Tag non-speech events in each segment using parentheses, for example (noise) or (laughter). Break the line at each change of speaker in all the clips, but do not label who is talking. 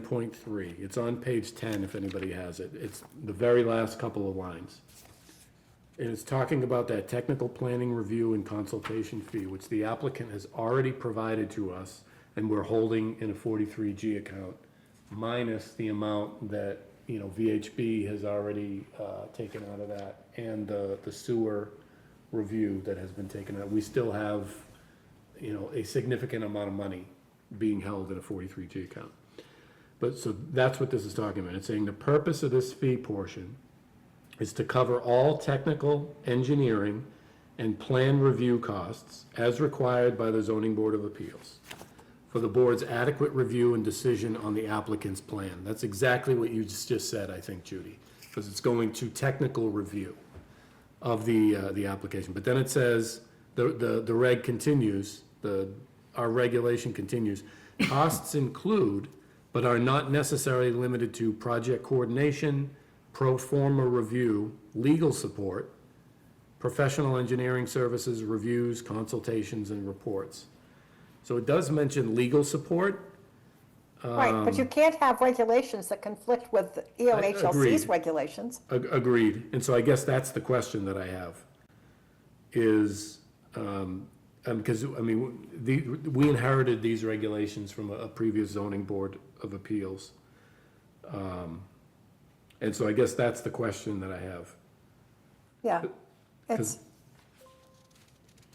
Point three, it's on page ten if anybody has it, it's the very last couple of lines. And it's talking about that technical planning review and consultation fee, which the applicant has already provided to us, and we're holding in a forty-three G account, minus the amount that, you know, VHB has already, uh, taken out of that, and the, the sewer review that has been taken out, we still have, you know, a significant amount of money being held in a forty-three G account. But so that's what this is talking about. It's saying the purpose of this fee portion is to cover all technical engineering and plan review costs as required by the zoning board of appeals for the board's adequate review and decision on the applicant's plan. That's exactly what you just just said, I think, Judy, because it's going to technical review of the, uh, the application. But then it says, the, the, the reg continues, the, our regulation continues. Costs include, but are not necessarily limited to project coordination, pro forma review, legal support, professional engineering services, reviews, consultations, and reports. So it does mention legal support.
Right, but you can't have regulations that conflict with E
Agreed.
EOHLC's regulations.
Ag- Agreed, and so I guess that's the question that I have, is, um, um, because, I mean, the, we inherited these regulations from a, a previous zoning board of appeals. Um, And so I guess that's the question that I have.
Yeah. It's,
'Cause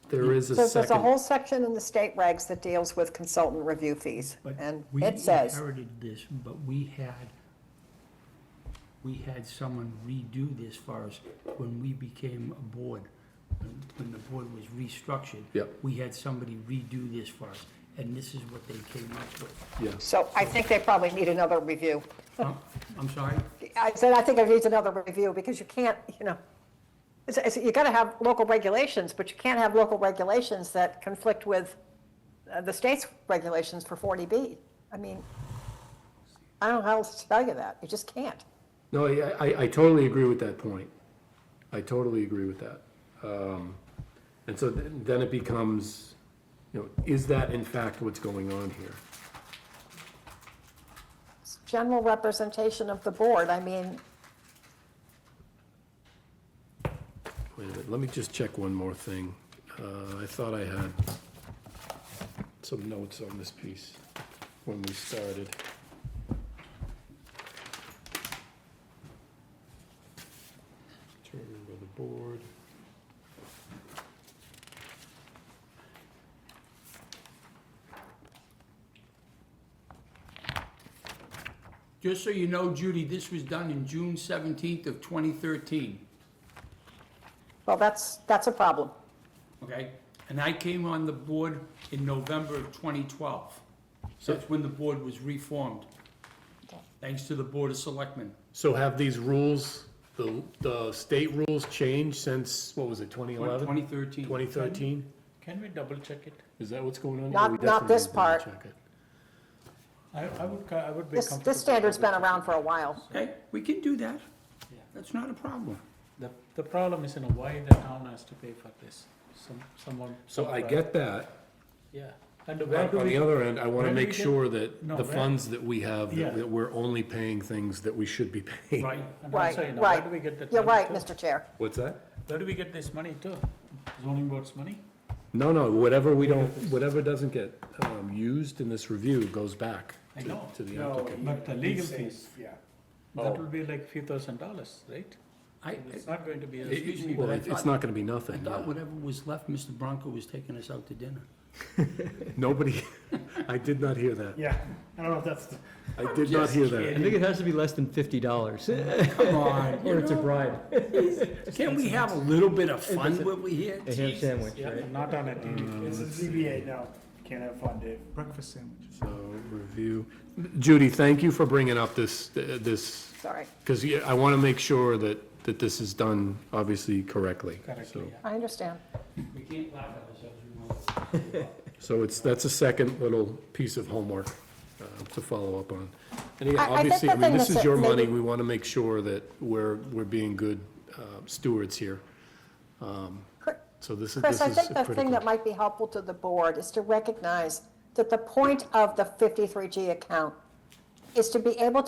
There is a
there's there's a
second,
whole section in the state regs that deals with consultant review fees.
But
And
we
it says,
inherited this, but we had, we had someone redo this for us when we became a board. When- When the board was restructured.
Yep.
We had somebody redo this for us, and this is what they came up with.
yes,
so I think they probably need another review.
Huh? I'm sorry?
I said, I think it needs another review because you can't, you know, it's, it's, you gotta have local regulations, but you can't have local regulations that conflict with uh, the state's regulations for 40B. I mean, I don't know how else to tell you that. You just can't.
no, I, I- I totally agree with that point, I totally agree with that. Um, And so then then it becomes, you know, is that in fact what's going on here?
It's General representation of the board, I mean,
Wait a minute, let me just check one more thing. Uh, I thought I had some notes on this piece when we started. Determined by the board.
Just so you know, Judy, this was done in June seventeenth of twenty thirteen.
well, that's, that's a problem.
okay? And I came on the board in November of 2012. That's when the board was reformed, thanks to the Board of Selectmen.
So have these rules, the, the state rules changed since, what was it, 2011?
2013.
2013?
Can we double check it?
Is that what's going on?
Not-
We
not
definitely
this
need to
part.
check it.
I, I would, ca- I would be
This,
comfortable.
this standard's been around for a while.
Okay, we can do that. That's not a problem.
The, the problem is, you know, why the town has to pay for this? Some, someone.
So
some
I
pri-
get that.
Yeah, and where do
On the
we,
other end, I want to
where do
make
we get-
sure that
No,
the
where-
funds that we have,
Yeah.
that that we're only paying things that we should be paying.
right, and
Right,
also, you know, where
right.
do we get that?
You're
money
right,
too?
Mr. Chair.
What's that?
Where do we get this money too? Zoning board's money?
No, no, whatever we don't, whatever doesn't get um, used in this review goes back
I
to
know.
to the
No,
applicant. Oh.
But the
he-
legal
he's saying-
fees.
Yeah.
That will be like few thousand dollars, right?
I,
It's not going to be,
It-
a
Excuse me,
Well,
but I
it- it's
thought-
not going to be
I
nothing.
thought
no.
whatever was left, Mr. Bronco was taking us out to dinner.
(laughs) Nobody, I did not hear that.
Yeah, I don't know if that's, the-
I did not hear that.
I think it has to be less than fifty dollars,
(laughs) Come on,
or it's a bribe,
can we have a little bit of fun when we're here?
a ham sandwich, right?
not on a TV.
it's a
Mm.
ZBA, no, can't have fun, Dave.
Breakfast sandwich.
So, review. Judy, thank you for bringing up this, this,
Sorry.
because I want to make sure that, that this is done, obviously, correctly.
Correctly,
So-
yeah.
I understand.
We can't laugh at ourselves, we won't.
So it's, that's a second little piece of homework uh, to follow up on. And again,
I- I think
obviously,
the
I mean,
thing
this
that's
is your
a- maybe-
money, we want to make sure that we're, we're being good uh, stewards here. Um,
Cr-
So this is, this
Chris, I
is
think the thing that
critical.
might be helpful to the board is to recognize that the point of the 53G account is to be able